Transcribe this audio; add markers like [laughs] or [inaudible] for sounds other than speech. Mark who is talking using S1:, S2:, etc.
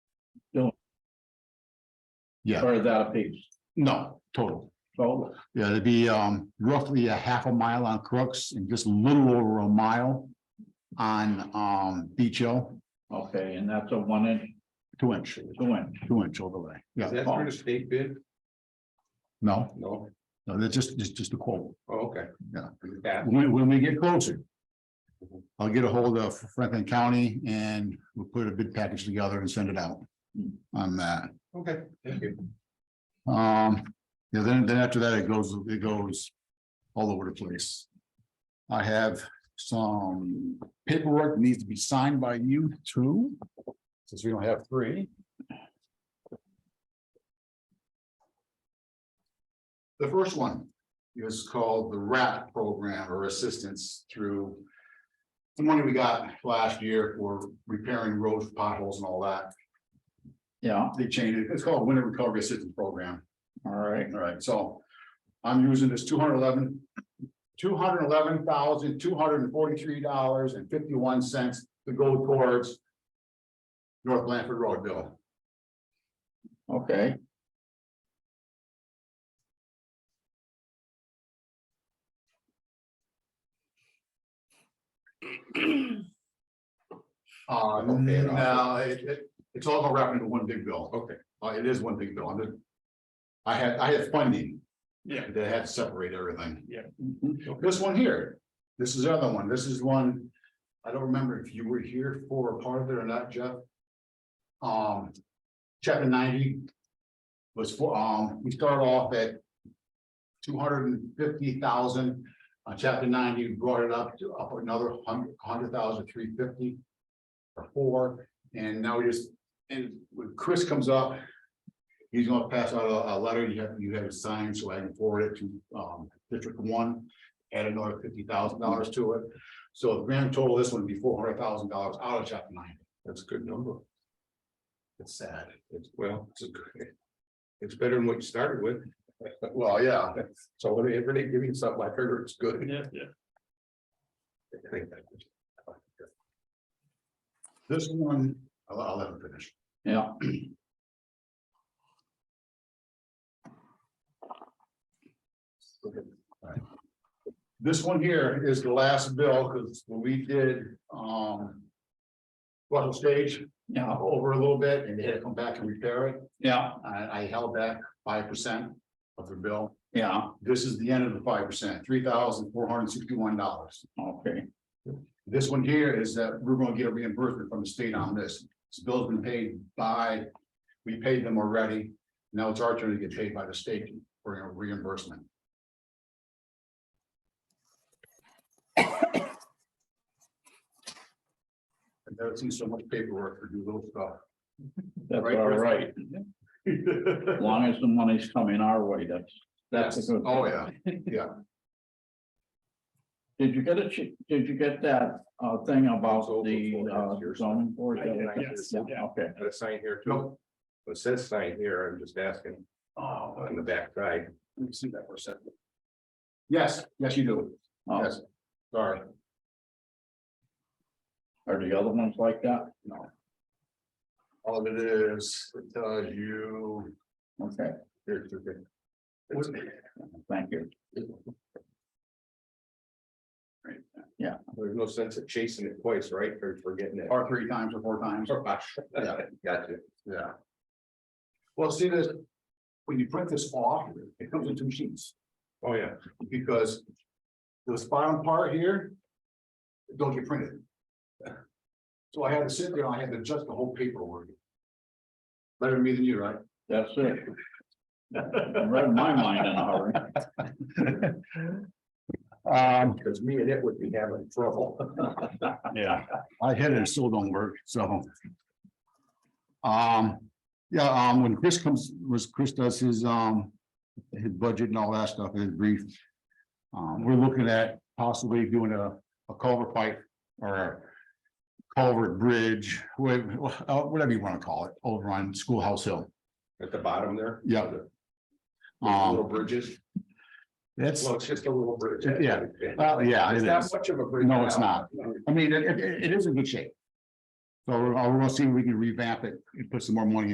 S1: Yeah,
S2: or is that a piece?
S1: no, total.
S2: So,
S1: Yeah, it'd be um roughly a half a mile on Crooks and just a little over a mile on um Beach Hill,
S2: okay, and that's a one inch,
S1: two inch,
S2: two inch.
S1: two inch overlay.
S3: Is that
S1: Yeah,
S3: for the state bid?
S1: no,
S3: No,
S1: no, that's just, just, just a quote.
S3: Oh, okay.
S1: Yeah.
S3: Yeah.
S1: When, when we get closer. I'll get a hold of Franklin County and we'll put a bid package together and send it out
S2: Hmm.
S1: on that.
S3: okay, thank you.
S1: Um, yeah, then, then after that, it goes, it goes all over the place. I have some paperwork needs to be signed by you too, since we don't have three. The first one is called the RAP program or assistance through the money we got last year for repairing roads, potholes and all that.
S2: Yeah,
S1: They changed it. It's called Winter Recovery Assistance Program.
S2: all right,
S1: All right, so I'm using this two hundred eleven, two hundred eleven thousand, two hundred and forty-three dollars and fifty-one cents to go towards North Blanford Road bill. Uh,
S2: okay,
S1: Uh,
S3: Okay, and
S1: now, it, it, it's all gonna wrap into one big bill.
S3: Okay.
S1: Uh, it is one big bill. I'm just- I had, I had funding.
S3: Yeah.
S1: That had to separate everything.
S2: mhm,
S1: This one here, this is the other one. This is one, I don't remember if you were here for a part of it or not, Jeff. Um, chapter ninety was for, um, we start off at two hundred and fifty thousand, uh, chapter ninety brought it up to up another hundred, hundred thousand, three fifty or four, and now we just, and when Chris comes up, he's gonna pass out a, a letter you have, you have to sign, so I can forward it to, um, District One, add another fifty thousand dollars to it. So the grand total, of this one would be four hundred thousand dollars out of chapter nine.
S3: That's a good number.
S1: It's sad.
S3: It's, well, it's a good. It's better than what you started with.
S1: Well, yeah,
S3: So whenever they give you something, I heard it's good. Yeah, yeah.
S1: this one, I'll, I'll let him finish.
S2: yeah,
S1: This one here is the last bill, because when we did, um. Russell Stage
S2: yeah,
S1: over a little bit, and they had to come back and repair it,
S2: yeah,
S1: I, I held back five percent of the bill.
S2: yeah,
S1: This is the end of the five percent, three thousand four hundred sixty-one dollars.
S2: okay,
S1: This one here is that we're gonna get a reimbursement from the state on this, this bill's been paid by, we paid them already. Now it's our turn to get paid by the state for a reimbursement. [coughs] I've never seen so much paperwork for do little stuff.
S2: that's
S1: Right,
S2: all
S1: Chris?
S2: right, as long as the money's coming our way, that's, that's a
S1: Yes.
S2: good.
S1: Oh,
S2: thing.
S1: yeah,
S2: Did you get a, ch- did you get that, uh, thing
S3: It's
S2: about
S3: over
S2: the,
S3: four
S2: uh,
S3: years.
S2: zoning board?
S3: I did, I did.
S2: Yeah, okay,
S3: Got a sign here too.
S1: no,
S3: It says sign here, I'm just asking
S1: oh,
S3: on the back side.
S1: let me see that for a second. Yes, yes, you do,
S2: Oh,
S1: yes, sorry.
S2: are the other ones like that?
S1: No. All it is, it tells you.
S2: Okay,
S1: here, here, here. It's-
S2: thank you,
S3: There's no sense of chasing it twice, right? Or forgetting it.
S1: Or three times or four times,
S2: Oh,
S3: Gotcha.
S1: yeah. Well, see this, when you print this off, it comes in two sheets,
S3: Oh, yeah.
S1: because. This bottom part here. Don't get printed. So I had to sit there, I had to adjust the whole paperwork. Better me than you, right?
S2: that's
S3: [laughs]
S2: it. I Read my mind in a hurry.
S1: Um,
S3: Because me and it would be having trouble.
S1: [laughs] Yeah, I hit it, it still don't work, so. Um, yeah, um, when Chris comes, was Chris does his, um, his budget and all that stuff, his brief. Um, we're looking at possibly doing a, a culvert pipe or a culvert bridge, wha- uh, whatever you wanna call it, over on Schoolhouse Hill.
S3: At the bottom there.
S1: Yeah.
S3: There's Little
S1: Um,
S3: bridges.
S1: that's,
S3: Well, it's just a little bridge.
S1: Yeah. well, yeah, it
S3: It's
S1: is.
S3: not much of a bridge.
S1: No, it's
S3: now.
S1: not. I mean, it, it, it is in good shape. So we're, we're gonna see if we can revamp it and put some more money